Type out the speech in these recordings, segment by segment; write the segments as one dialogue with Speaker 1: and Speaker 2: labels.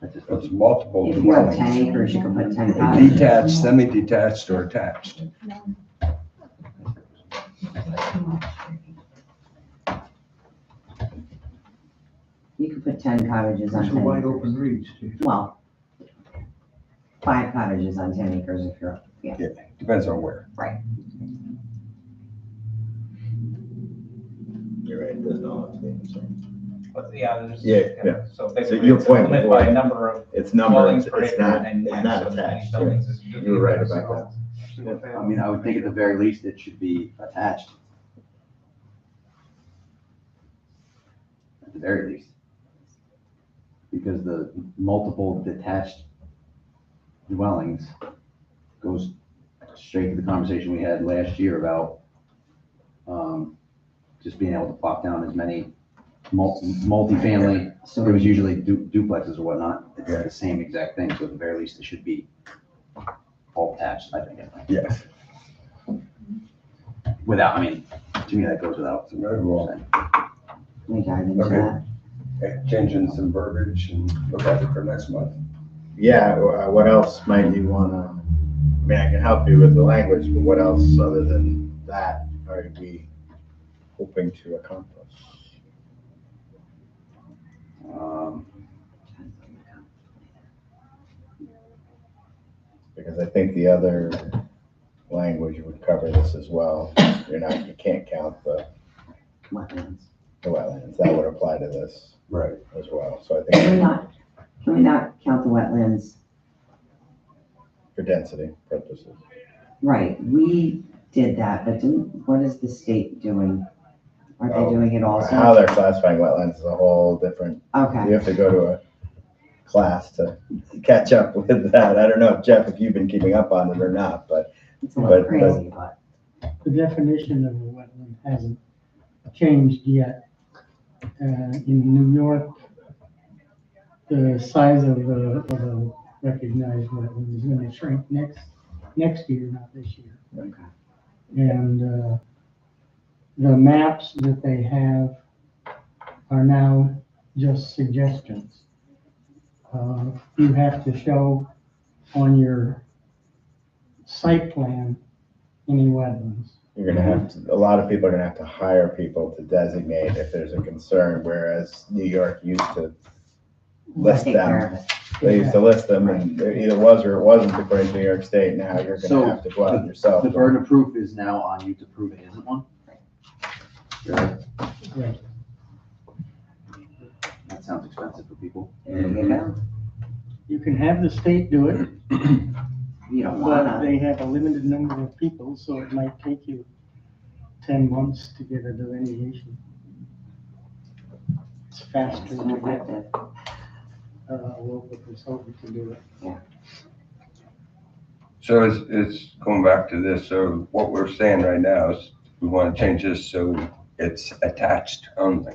Speaker 1: It's it's multiple
Speaker 2: If you have ten
Speaker 1: dwellings,
Speaker 2: acres, you can put ten
Speaker 1: a
Speaker 2: houses.
Speaker 1: detached, semi-detached, or attached.
Speaker 2: You could put ten cottages on
Speaker 3: It's a
Speaker 2: ten
Speaker 3: wide
Speaker 2: acres.
Speaker 3: open reach, dude.
Speaker 2: Well, five cottages on ten acres if you're, yeah.
Speaker 1: Depends on where.
Speaker 4: You're right, it doesn't all have to be, so.
Speaker 5: But yeah, there's.
Speaker 4: Yeah, yeah.
Speaker 5: So
Speaker 4: So
Speaker 5: basically,
Speaker 4: your
Speaker 5: it's a
Speaker 4: point
Speaker 5: limit
Speaker 4: was-
Speaker 5: by number of
Speaker 4: It's
Speaker 5: dwellings
Speaker 4: numbers,
Speaker 5: per
Speaker 4: it's
Speaker 5: acre
Speaker 4: not,
Speaker 5: and
Speaker 4: it's
Speaker 5: max
Speaker 4: not
Speaker 5: of many
Speaker 4: attached.
Speaker 5: buildings. is
Speaker 4: yeah. You were right about
Speaker 5: so-
Speaker 4: that.
Speaker 3: Single
Speaker 6: I
Speaker 3: family.
Speaker 6: mean, I would think at the very least it should be attached. At the very least. Because the multiple detached dwellings goes straight to the conversation we had last year about um, just being able to plop down as many mul- multifamily, so it was usually du- duplexes or whatnot. It's the same exact thing, so at the very least it should be all attached, I think.
Speaker 1: Yes.
Speaker 6: Without, I mean, to me, that goes without.
Speaker 1: Right, well.
Speaker 6: saying.
Speaker 2: We dive into
Speaker 1: Okay.
Speaker 2: that.
Speaker 1: Changing some verbiage and look at it for next month.
Speaker 4: Yeah, wh- uh, what else might you wanna, I mean, I can help you with the language, but what else other than that are we hoping to accomplish?
Speaker 6: Um,
Speaker 4: Because I think the other language would cover this as well. You're not, you can't count the
Speaker 2: Wetlands.
Speaker 4: the wetlands. That would apply to this
Speaker 1: Right.
Speaker 4: as well. So I
Speaker 2: Can we
Speaker 4: think
Speaker 2: not, can we not count the wetlands?
Speaker 4: for density purposes.
Speaker 2: Right, we did that, but didn't, what is the state doing? Are
Speaker 4: Oh,
Speaker 2: they doing it
Speaker 4: How
Speaker 2: also?
Speaker 4: they're classifying wetlands is a whole different
Speaker 2: Okay,
Speaker 4: You have to go to a class to catch up with that. I don't know, if Jeff, if you've been keeping up on it or not, but
Speaker 2: it's a little
Speaker 4: but-
Speaker 2: crazy, but
Speaker 7: The definition of a wetland hasn't changed yet. Uh, in New York, the size of the, of a recognized wetland is gonna shrink next, next year, not this year.
Speaker 2: Okay.
Speaker 7: And, uh, the maps that they have are now just suggestions. Uh, you have to show on your site plan any wetlands.
Speaker 4: you're gonna have, to- a lot of people are gonna have to hire people to designate if there's a concern, whereas New York used to
Speaker 2: we'll
Speaker 4: list
Speaker 2: take care
Speaker 4: them.
Speaker 2: of it.
Speaker 4: They used to list them and it either was or it wasn't according to New York State. Now you're
Speaker 6: So,
Speaker 4: gonna have to go out yourself.
Speaker 6: The burden of proof is now on you to prove it isn't one. Really?
Speaker 7: Right.
Speaker 6: That sounds expensive for people.
Speaker 2: There you go.
Speaker 7: You can have the state do it,
Speaker 6: You don't
Speaker 7: but
Speaker 6: wanna.
Speaker 7: they have a limited number of people, so it might take you ten months to get a delineation. It's faster
Speaker 2: It's
Speaker 7: to
Speaker 2: not like
Speaker 7: get
Speaker 2: that.
Speaker 7: uh, a local consultant to do it.
Speaker 1: So it's, it's going back to this, so what we're saying right now is we want to change this so it's attached only.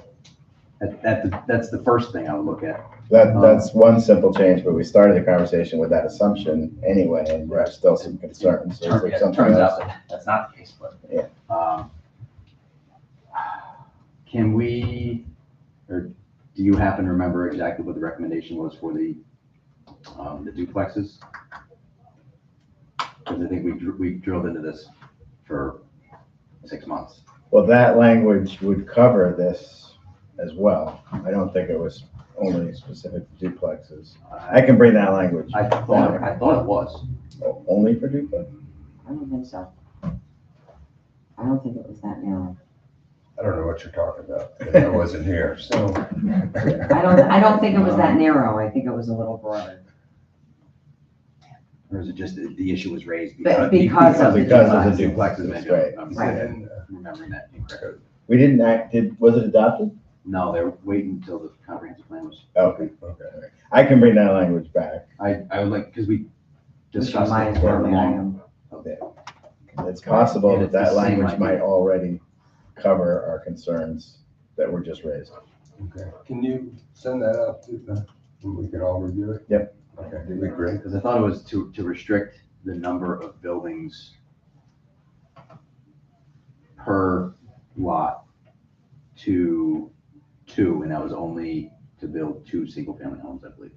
Speaker 6: That, that, that's the first thing I would look at.
Speaker 4: That, that's one simple change, but we started the conversation with that assumption anyway, and there's still some concerns. So is
Speaker 6: Turn-
Speaker 4: there
Speaker 6: yeah,
Speaker 4: something
Speaker 6: Turns
Speaker 4: else?
Speaker 6: out that that's not the case, but.
Speaker 4: Yeah.
Speaker 6: um, Can we, or do you happen to remember exactly what the recommendation was for the, um, the duplexes? Because I think we, dr- we drilled into this for six months.
Speaker 4: Well, that language would cover this as well. I don't think it was only specific to duplexes. I
Speaker 6: I,
Speaker 4: can bring that language.
Speaker 6: I thought, I thought it was.
Speaker 4: O- Only for duplex?
Speaker 2: I don't think so. I don't think it was that narrow.
Speaker 1: I don't know what you're talking about, 'cause I wasn't here, so.
Speaker 2: I don't, I don't think it was that narrow. I think it was a little broader.
Speaker 6: Or is it just that the issue was raised?
Speaker 2: But because of the
Speaker 4: Because of the
Speaker 6: duplex.
Speaker 4: duplexes,
Speaker 6: Maybe
Speaker 4: right.
Speaker 6: I'm-
Speaker 2: Right.
Speaker 6: I'm Remembering that incorrectly.
Speaker 4: We didn't act, did, was it adopted?
Speaker 6: No, they were waiting until the comprehensive plan was
Speaker 4: Okay,
Speaker 1: Okay.
Speaker 4: I can bring that language back.
Speaker 6: I, I would like, because we
Speaker 2: which
Speaker 6: discussed
Speaker 2: reminds
Speaker 6: it
Speaker 2: me
Speaker 6: for
Speaker 2: where I
Speaker 6: a long.
Speaker 2: am.
Speaker 4: It's possible
Speaker 6: And
Speaker 4: that
Speaker 6: it's the
Speaker 4: that
Speaker 6: same
Speaker 4: language
Speaker 6: idea.
Speaker 4: might already cover our concerns that were just raised.
Speaker 1: uh, Okay. Can you send that out to the, and we can all review it?
Speaker 4: Yep.
Speaker 1: Okay, that'd be great.
Speaker 6: Because I thought it was to, to restrict the number of buildings per lot to two, and that was only to build two single-family homes, I believe.